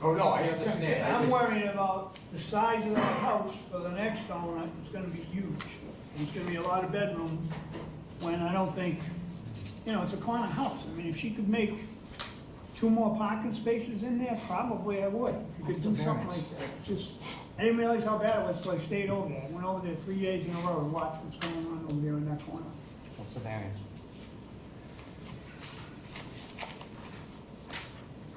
Oh, no, I understand. I I'm just- worried about the size of the house for the next owner, it's gonna be huge. There's gonna be a lot of bedrooms, when I don't think, you know, it's a corner house, I mean, if she could make two more parking spaces in there, probably I would. If you could do something like that, It's just, I didn't realize how bad it was till I stayed over there, I went over there three days in a row and watched what's going on over there in that corner. What's the variance?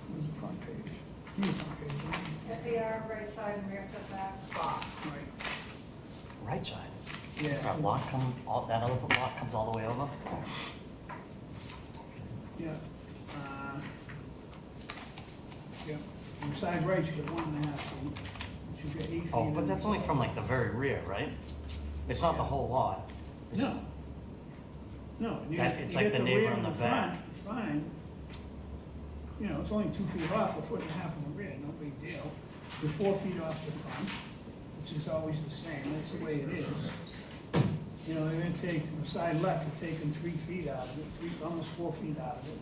It was the front page. It was the front page, wasn't FAR, right side and rear setback. it? Right. Right side. Yeah. Does that lot come, all, that other lot comes all the way over? Yeah. uh, Yeah, and side right's got one and a half feet, which is got eight feet. Oh, but on that's the only side. from like the very rear, right? It's not the whole lot. It's- No. No, you That- get, you it's like get the the neighbor rear and on the the back. front, it's fine. You know, it's only two feet off, a foot and a half on the rear, no big deal. You're four feet off the front, which is always the same, that's the way it is. You know, they're gonna take, the side left, they're taking three feet out of it, three, almost four feet out of it.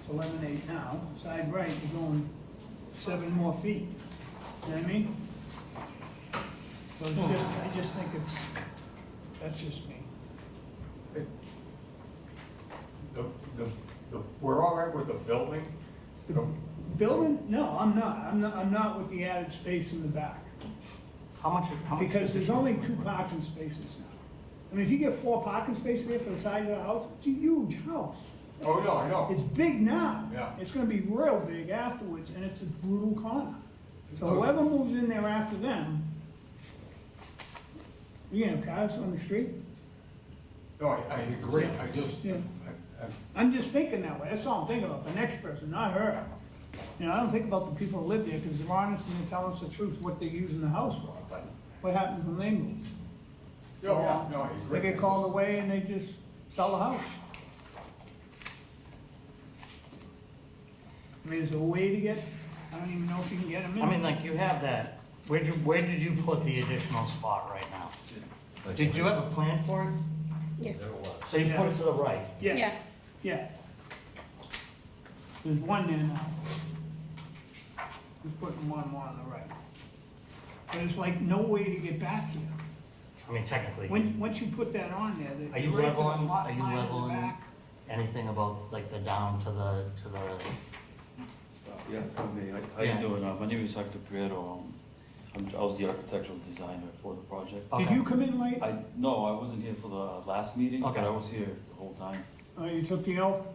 It's eleven eight now, side right, you're going seven more feet, you know what I mean? So it's Hmm. just, I just think it's, that's just me. The, the, the, we're all right with the building? The- Building, no, I'm not, I'm not, I'm not with the added space in the back, How much, how much? because there's additional only square two footage? parking spaces now. I mean, if you get four parking spaces there for the size of the house, it's a huge house. Oh, no, I know. It's big now. Yeah. It's gonna be real big afterwards, and it's a brutal corner. So whoever moves in there after them, you gonna have cars on the street? No, I, I agree, I just, Yeah. I- I- I'm just thinking that way, that's all I'm thinking about, the next person, not her. You know, I don't think about the people who live there, because they're honest and they tell us the truth, what they're using the house for, but what happens when they move? no, no, no, I agree. They get called away and they just sell the house. I mean, is there a way to get, I don't even know if you can get them in. I mean, like you have that, where did, where did you put the additional spot right now? Did you have a plan for it? Yes. So you put it to the right? Yeah, yeah. There's one there now. Just putting one more on the right. But it's like no way to get back here. I mean, technically, When, once you put that on there, the. Are you the rest of the leveling- lot are you line in the leveling? back- anything about like the down to the, to the, Yeah, for me, I- how Yeah. you doing? Uh, My name is Hector Prieto. Um, I'm- I was the architectural designer for the project. Okay. Did you come in late? I, no, I wasn't here for the last meeting, but Okay. I was here the whole time. Oh, you took the oath?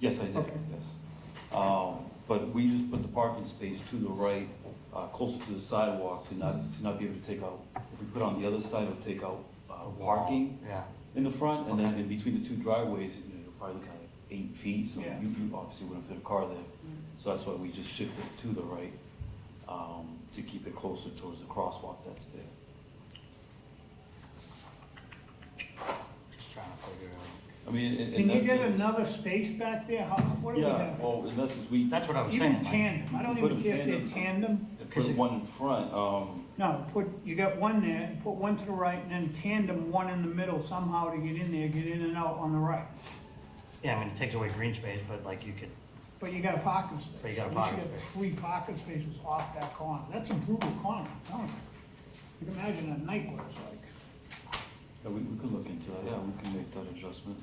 Yes, I did, Okay. yes. Um, But we just put the parking space to the right, uh, closer to the sidewalk to not, to not be able to take out. If we put on the other side, it'll take out uh, parking yeah? in the front, and then Okay. in between the two driveways, you know, you're probably looking at like eight feet, so Yeah. you, you obviously wouldn't fit a car there. Mm. So that's why we just shifted to the right, um, to keep it closer towards the crosswalk that's there. Just trying to figure out. I mean, in, in Can you get essence- another space back there? How, what do we Yeah, have? well, in essence, we, That's what I was Oh, saying, Even like, tandem, I don't Put even a care if they're tandem. tandem. Cause put it- one in front, um, No, put, you got one there, put one to the right, and then tandem one in the middle somehow to get in there, get in and out on the right. yeah, I mean, it takes away green space, but like you could, But you got a parking space. But you got a At least parking got space. Three parking spaces off that corner, that's a brutal corner, I'm telling you. You can imagine at night what it's like. yeah, we, we could look into that, yeah, we can make that adjustment.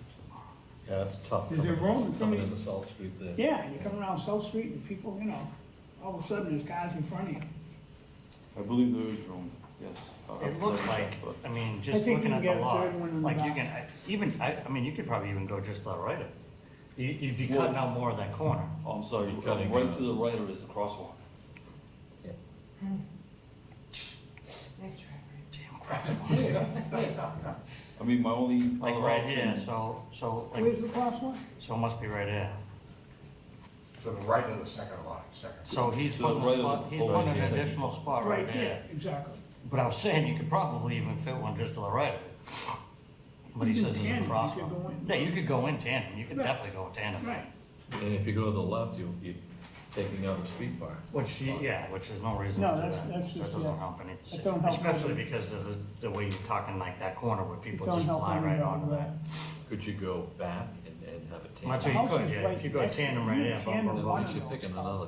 Yeah, that's tough. Is there coming- room for Coming me- into South Street there. Yeah, you come around South Street and people, you know, all of a sudden there's guys in front of you. I believe there is room, yes. Uh, I'll have it to looks double check, like, but- I mean, I just think looking you at can the get a lot, third one in the like you back. can, I- even, I, I mean, you could probably even go just to the right of it. You, you'd be Well- cutting out more of that corner. Oh, I'm sorry, You're uh, cutting right out. to the right or is the crosswalk? Nice try. Damn crosswalk. I mean, my only Like other right option here, so, so, like, Where's the crosswalk? so it must be right here. To the right of the second lot, second. So he's To the putting a right of spot, the he's pole, putting he an said. additional spot right there. Exactly. But I was saying, you could probably even fit one just to the right of it. But he You can says it's tandem, a you could go crosswalk. in. Yeah, you could go in tandem, you could Right. definitely go in tandem. Right, And if you go to the left, you'll be taking out a street bar. Which, you- yeah, which is no reason to No, do that. that's- that's That just- doesn't yeah. help That don't anything, help especially anything. because of the, the way you're talking like that corner where people It don't just help fly right anybody, onto that. Could you go back and, and have a tandem? That's what The you house could, is yeah, right if you go next to tandem right you, there, bump, tandem bump, Then one at of bump. least you're those picking cars. another